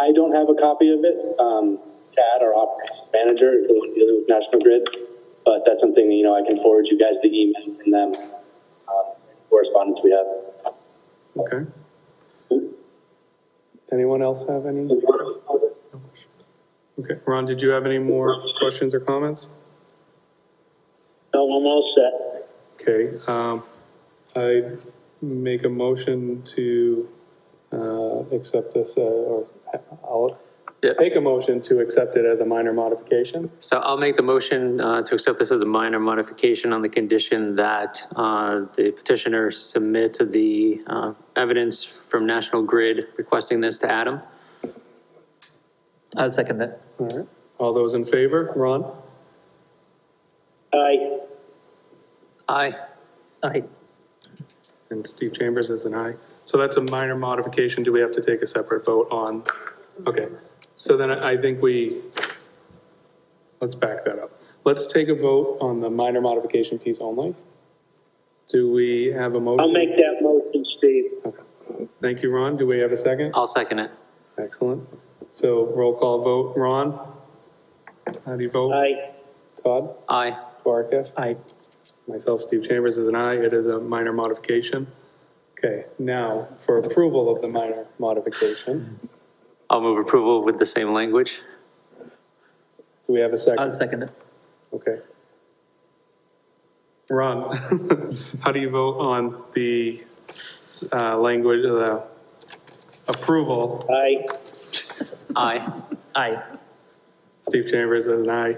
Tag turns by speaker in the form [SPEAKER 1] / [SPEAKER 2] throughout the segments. [SPEAKER 1] I don't have a copy of it. Um, Tad, our operations manager, is the one dealing with National Grid, but that's something, you know, I can forward you guys the email from them, um, correspondence we have.
[SPEAKER 2] Okay. Anyone else have any? Okay, Ron, did you have any more questions or comments?
[SPEAKER 3] No, I'm all set.
[SPEAKER 2] Okay, um, I make a motion to, uh, accept this, uh, or I'll
[SPEAKER 4] Yeah.
[SPEAKER 2] take a motion to accept it as a minor modification.
[SPEAKER 4] So I'll make the motion uh, to accept this as a minor modification on the condition that uh, the petitioner submit the uh, evidence from National Grid requesting this to Adam.
[SPEAKER 5] I'll second that.
[SPEAKER 2] All right, all those in favor? Ron?
[SPEAKER 3] Aye.
[SPEAKER 4] Aye.
[SPEAKER 5] Aye.
[SPEAKER 2] And Steve Chambers is an aye. So that's a minor modification. Do we have to take a separate vote on? Okay, so then I I think we, let's back that up. Let's take a vote on the minor modification piece only. Do we have a motion?
[SPEAKER 3] I'll make that motion, Steve.
[SPEAKER 2] Thank you, Ron. Do we have a second?
[SPEAKER 4] I'll second it.
[SPEAKER 2] Excellent. So roll call vote. Ron? How do you vote?
[SPEAKER 3] Aye.
[SPEAKER 2] Todd?
[SPEAKER 4] Aye.
[SPEAKER 2] Duarkesh?
[SPEAKER 5] Aye.
[SPEAKER 2] Myself, Steve Chambers, is an aye. It is a minor modification. Okay, now for approval of the minor modification.
[SPEAKER 4] I'll move approval with the same language.
[SPEAKER 2] Do we have a
[SPEAKER 5] I'll
[SPEAKER 2] second?
[SPEAKER 4] Uh,
[SPEAKER 5] second it.
[SPEAKER 2] Okay. Ron, how do you vote on the uh, language, the approval?
[SPEAKER 3] Aye.
[SPEAKER 4] Aye.
[SPEAKER 5] Aye.
[SPEAKER 2] Steve Chambers is an aye.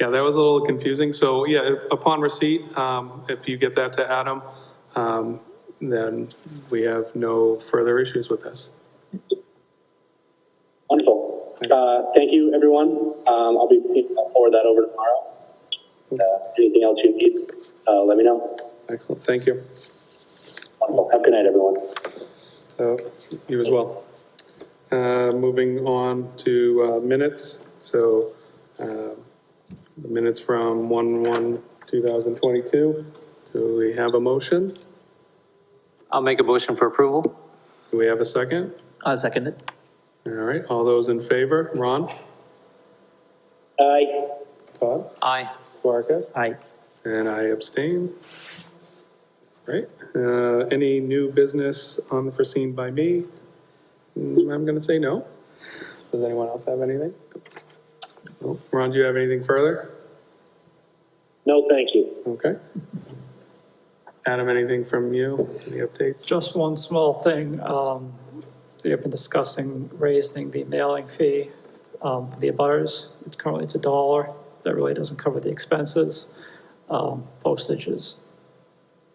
[SPEAKER 2] Yeah, that was a little confusing. So yeah, upon receipt, um, if you get that to Adam, um, then we have no further issues with this.
[SPEAKER 1] Wonderful. Uh, thank you, everyone. Um, I'll be, I'll forward that over tomorrow. Uh, anything else you need, uh, let me know.
[SPEAKER 2] Excellent, thank you.
[SPEAKER 1] Wonderful. Have a good night, everyone.
[SPEAKER 2] Uh, You as well. Uh, Moving on to uh, minutes, so um, the minutes from 1/1/2022. Do we have a motion?
[SPEAKER 4] I'll make a motion for approval.
[SPEAKER 2] Do we have a second?
[SPEAKER 5] I'll second it.
[SPEAKER 2] All right, all those in favor? Ron?
[SPEAKER 3] Aye.
[SPEAKER 2] Todd?
[SPEAKER 4] Aye.
[SPEAKER 2] Barca?
[SPEAKER 5] Aye.
[SPEAKER 2] And I abstain. Right, uh, any new business unforeseen by me? Mm, I'm gonna say no. Does anyone else have anything? No. Ron, do you have anything further?
[SPEAKER 3] No, thank you.
[SPEAKER 2] Okay. Adam, anything from you, any updates?
[SPEAKER 6] Just one small thing, um, they have been discussing raising the mailing fee, um, for the abutters. It's currently, it's a dollar, that really doesn't cover the expenses. Um, postage is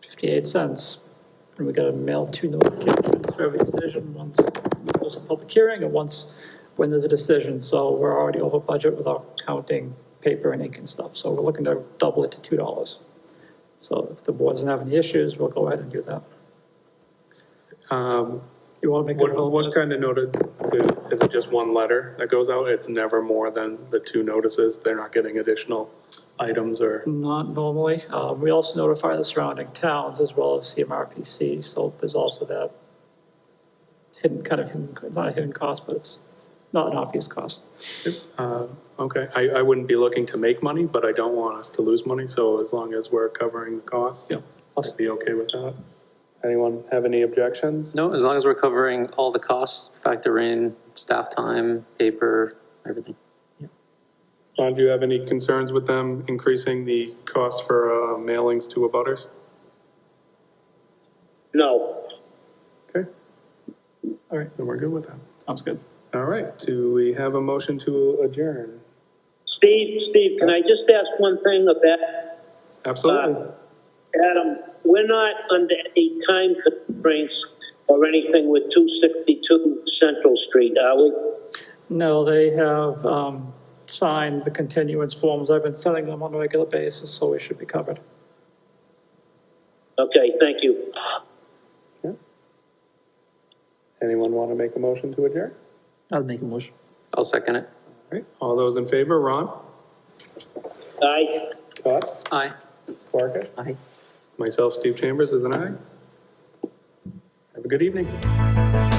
[SPEAKER 6] fifty-eight cents, and we gotta mail two notifications for every decision, once we post the public hearing, and once when there's a decision, so we're already over budget without counting paper and ink and stuff, so we're looking to double it to two dollars. So if the board doesn't have any issues, we'll go ahead and do that.
[SPEAKER 2] Um,
[SPEAKER 6] You want to make a
[SPEAKER 2] what, what
[SPEAKER 6] vote?
[SPEAKER 2] kind of notice, is it just one letter that goes out? It's never more than the two notices, they're not getting additional items or?
[SPEAKER 6] Not normally. Um, We also notify the surrounding towns as well as CMRPC, so there's also that hidden, kind of hidden, not a hidden cost, but it's not an obvious cost.
[SPEAKER 2] Uh, Okay, I, I wouldn't be looking to make money, but I don't want us to lose money, so as long as we're covering the costs,
[SPEAKER 6] Yeah.
[SPEAKER 2] I'd be okay with that. Anyone have any objections?
[SPEAKER 4] No, as long as we're covering all the costs, factor in staff time, paper, everything.
[SPEAKER 2] John, do you have any concerns with them increasing the cost for uh, mailings to abutters?
[SPEAKER 3] No.
[SPEAKER 2] Okay,
[SPEAKER 6] All right,
[SPEAKER 2] then we're good with that.
[SPEAKER 6] sounds good.
[SPEAKER 2] All right, do we have a motion to adjourn?
[SPEAKER 3] Steve, Steve, can I just ask one thing about uh,
[SPEAKER 1] Uh,
[SPEAKER 2] Absolutely.
[SPEAKER 3] Adam? We're not under any time constraints or anything with 262 Central Street, are we?
[SPEAKER 6] No, they have um, signed the continuance forms. I've been sending them on a regular basis, so we should be covered.
[SPEAKER 3] Okay, thank you.
[SPEAKER 2] Yeah. Anyone want to make a motion to adjourn?
[SPEAKER 5] I'll make a motion.
[SPEAKER 4] I'll second it.
[SPEAKER 2] All right, all those in favor, Ron?
[SPEAKER 3] Aye.
[SPEAKER 2] Todd?
[SPEAKER 4] Aye.
[SPEAKER 2] Parker?
[SPEAKER 5] Aye.
[SPEAKER 2] Myself, Steve Chambers, is an aye. Have a good evening.